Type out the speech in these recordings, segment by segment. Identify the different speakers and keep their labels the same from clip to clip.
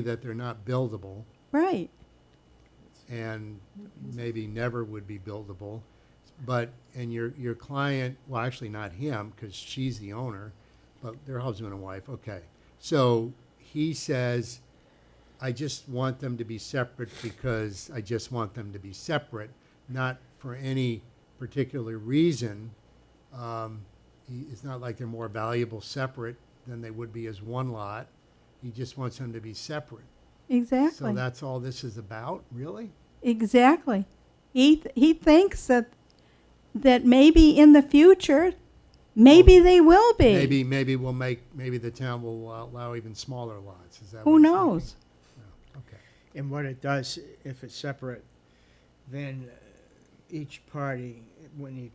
Speaker 1: that they're not buildable
Speaker 2: Right.
Speaker 1: and maybe never would be buildable. But, and your, your client, well, actually not him, because she's the owner, but their husband and wife, okay. So he says, I just want them to be separate because I just want them to be separate, not for any particular reason. Um, he, it's not like they're more valuable separate than they would be as one lot. He just wants them to be separate. So
Speaker 2: Exactly.
Speaker 1: that's all this is about, really?
Speaker 2: Exactly. He th- he thinks that that maybe in the future, maybe they will be.
Speaker 1: Maybe, maybe we'll make, maybe the town will allow even smaller lots, is that?
Speaker 2: Who
Speaker 1: what you're thinking?
Speaker 2: knows?
Speaker 1: No. Okay,
Speaker 3: And what it does, if it's separate, then uh, each party, when he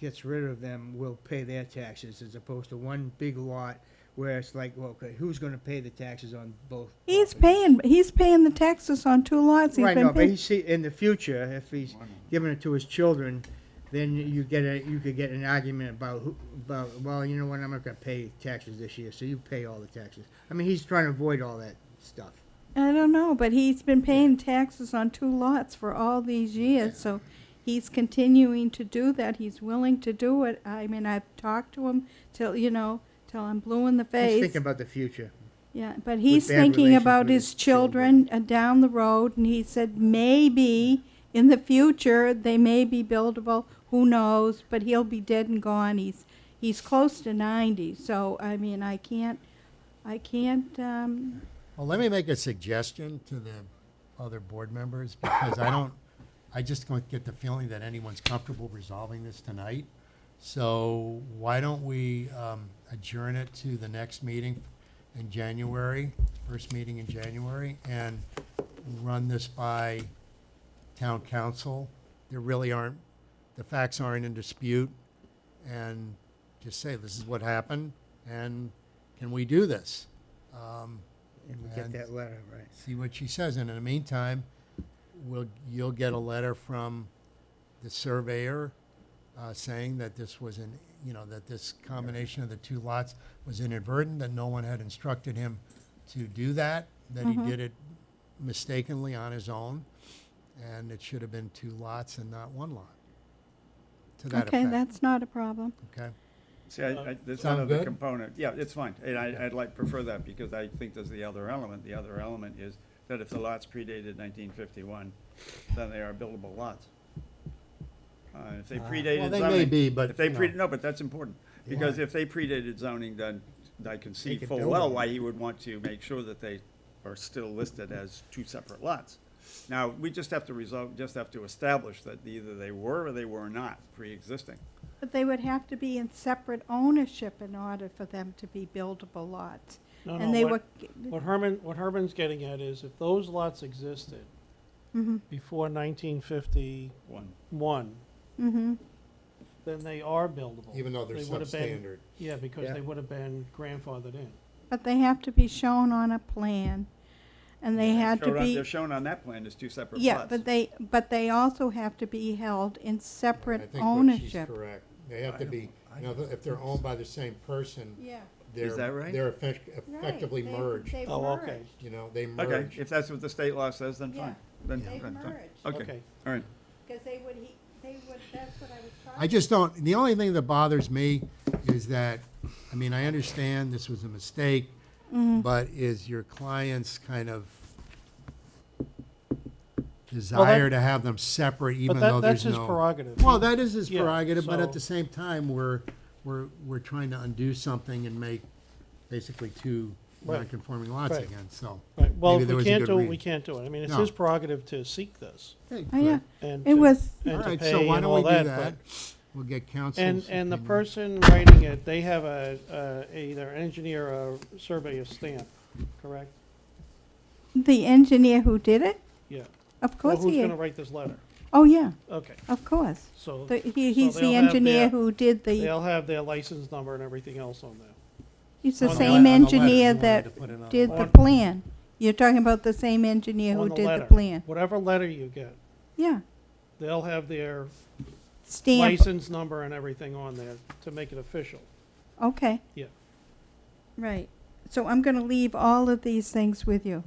Speaker 3: gets rid of them, will pay their taxes as opposed to one big lot where it's like, well, okay, who's gonna pay the taxes on both?
Speaker 2: He's
Speaker 3: properties?
Speaker 2: paying he's paying the taxes on two lots. He's
Speaker 3: Right,
Speaker 2: been
Speaker 3: no, but
Speaker 2: paying-
Speaker 3: he see, in the future, if he's giving it to his children, then you get a, you could get an argument about who, about, well, you know what, I'm not gonna pay taxes this year, so you pay all the taxes. I mean, he's trying to avoid all that stuff.
Speaker 2: I don't know, but he's been paying taxes on two lots for all these years, so he's continuing to do that. He's willing to do it. I mean, I've talked to him till you know till I'm blue in the
Speaker 3: He's
Speaker 2: face.
Speaker 3: thinking about the future.
Speaker 2: Yeah, but he's
Speaker 3: bad
Speaker 2: thinking
Speaker 3: relations
Speaker 2: about
Speaker 3: with
Speaker 2: his
Speaker 3: his
Speaker 2: children uh, down the road, and he said maybe in the future they may be buildable. Who knows? But he'll be dead and gone. He's he's close to ninety, so I mean, I can't, I can't. Um,
Speaker 1: well, let me make a suggestion to the other board members, because I don't, I just don't get the feeling that anyone's comfortable resolving this tonight. So why don't we um, adjourn it to the next meeting in January, first meeting in January, and run this by town council? There really aren't, the facts aren't in dispute, and just say, this is what happened, and can we do this? Um,
Speaker 3: And we
Speaker 1: And-
Speaker 3: get that letter, right?
Speaker 1: see what she says. And in the meantime, we'll, you'll get a letter from the surveyor uh, saying that this was an, you know, that this combination of the two lots was inadvertent, that no one had instructed him to do that, that
Speaker 2: Mm-hmm.
Speaker 1: he did it mistakenly on his own, and it should have been two lots and not one lot. To that
Speaker 2: okay,
Speaker 1: effect.
Speaker 2: that's not a problem.
Speaker 1: okay.
Speaker 4: See, I, I, there's
Speaker 1: Sound
Speaker 4: another
Speaker 1: good?
Speaker 4: component, yeah, it's fine, and I, I'd like, prefer that, because I think there's the other element, the other element is that if the lots predated nineteen fifty-one, then they are buildable lots. Uh, if they
Speaker 1: Well,
Speaker 4: predated zoning.
Speaker 1: they may be, but,
Speaker 4: If they
Speaker 1: you
Speaker 4: pre,
Speaker 1: know.
Speaker 4: no, but that's important, because if they predated zoning, then I can see
Speaker 1: could
Speaker 4: full
Speaker 1: build
Speaker 4: well
Speaker 1: on
Speaker 4: why he would want to make sure that they are still listed as two separate lots. Now, we just have to resolve, just have to establish that either they were or they were not pre-existing.
Speaker 2: But they would have to be in separate ownership in order for them to be buildable lots,
Speaker 5: No,
Speaker 2: and
Speaker 5: no,
Speaker 2: they
Speaker 5: what,
Speaker 2: were.
Speaker 5: what Herman, what Herman's getting at is if those lots existed
Speaker 2: Mm-hmm,
Speaker 5: before nineteen fifty-one,
Speaker 4: One,
Speaker 2: mm-hmm.
Speaker 5: then they are buildable.
Speaker 1: Even though they're
Speaker 5: They would've been-
Speaker 1: substandard.
Speaker 5: Yeah, because
Speaker 3: Yeah.
Speaker 5: they would have been grandfathered in.
Speaker 2: But they have to be shown on a plan, and they had to
Speaker 4: Showed on-
Speaker 2: be.
Speaker 4: They're shown on that plan as two separate plots.
Speaker 2: Yeah, but they, but they also have to be held in
Speaker 1: I think
Speaker 2: separate
Speaker 1: what she's
Speaker 2: ownership.
Speaker 1: correct. They have
Speaker 4: I
Speaker 1: to
Speaker 4: don't-
Speaker 1: be,
Speaker 4: I
Speaker 1: you know, if they're owned by the same person,
Speaker 2: Yeah.
Speaker 1: they're,
Speaker 4: that right?
Speaker 1: they're effect- effectively merged.
Speaker 5: Oh, okay.
Speaker 1: You know, they
Speaker 4: Okay,
Speaker 1: merge.
Speaker 4: if that's what the state law says, then fine. Then
Speaker 2: They
Speaker 4: then fine.
Speaker 2: merged,
Speaker 4: Okay, all right.
Speaker 2: because they would, he, they would, that's what I was trying.
Speaker 1: I just don't, the only thing that bothers me is that, I mean, I understand this was a mistake,
Speaker 2: Mm-hmm.
Speaker 1: but is your client's kind of desire to have them separate even
Speaker 5: But
Speaker 1: though
Speaker 5: that,
Speaker 1: there's
Speaker 5: that's
Speaker 1: no.
Speaker 5: his prerogative.
Speaker 1: Well, that is his
Speaker 5: Yeah,
Speaker 1: prerogative, but at
Speaker 5: so-
Speaker 1: the same time, we're, we're, we're trying to undo something and make basically two
Speaker 5: Right.
Speaker 1: non-conforming lots
Speaker 5: Right.
Speaker 1: again, so.
Speaker 5: Right, well,
Speaker 1: maybe
Speaker 5: if
Speaker 1: there
Speaker 5: we
Speaker 1: was a
Speaker 5: can't
Speaker 1: good
Speaker 5: do it, we
Speaker 1: reason.
Speaker 5: can't do it. I mean, it's
Speaker 1: No.
Speaker 5: his prerogative to seek this
Speaker 1: Hey,
Speaker 2: Oh, yeah,
Speaker 1: good.
Speaker 5: and.
Speaker 2: it
Speaker 5: to-
Speaker 2: was,
Speaker 5: and
Speaker 1: All
Speaker 5: to
Speaker 1: right,
Speaker 5: pay
Speaker 1: so why
Speaker 5: and
Speaker 1: don't
Speaker 5: all
Speaker 1: we do
Speaker 5: but-
Speaker 1: that? We'll get council's
Speaker 5: And, and the
Speaker 1: opinion.
Speaker 5: person writing it, they have a, uh, either engineer or surveyor stamp, correct?
Speaker 2: the engineer who did it,
Speaker 5: Yeah. Of
Speaker 2: of course
Speaker 5: Who's
Speaker 2: he,
Speaker 5: gonna write this letter?
Speaker 2: oh, yeah,
Speaker 5: Okay,
Speaker 2: of course.
Speaker 5: so
Speaker 2: The- he-
Speaker 5: So
Speaker 2: He's
Speaker 5: they'll
Speaker 2: the
Speaker 5: have
Speaker 2: engineer
Speaker 5: their-
Speaker 2: who did the,
Speaker 5: they'll have their license number and everything else on there.
Speaker 2: he's the
Speaker 5: on the
Speaker 2: same
Speaker 1: le- on the letter, you
Speaker 2: engineer
Speaker 1: wanted
Speaker 2: that
Speaker 1: to put it on the
Speaker 2: did the
Speaker 5: letter.
Speaker 2: plan. You're talking about the same engineer who
Speaker 5: on the
Speaker 2: did the
Speaker 5: letter.
Speaker 2: plan.
Speaker 5: Whatever letter you get,
Speaker 2: Yeah,
Speaker 5: they'll have their
Speaker 2: stamp,
Speaker 5: license number and everything on there to make it official.
Speaker 2: okay.
Speaker 5: Yeah.
Speaker 2: Right, so I'm gonna leave all of these things with you.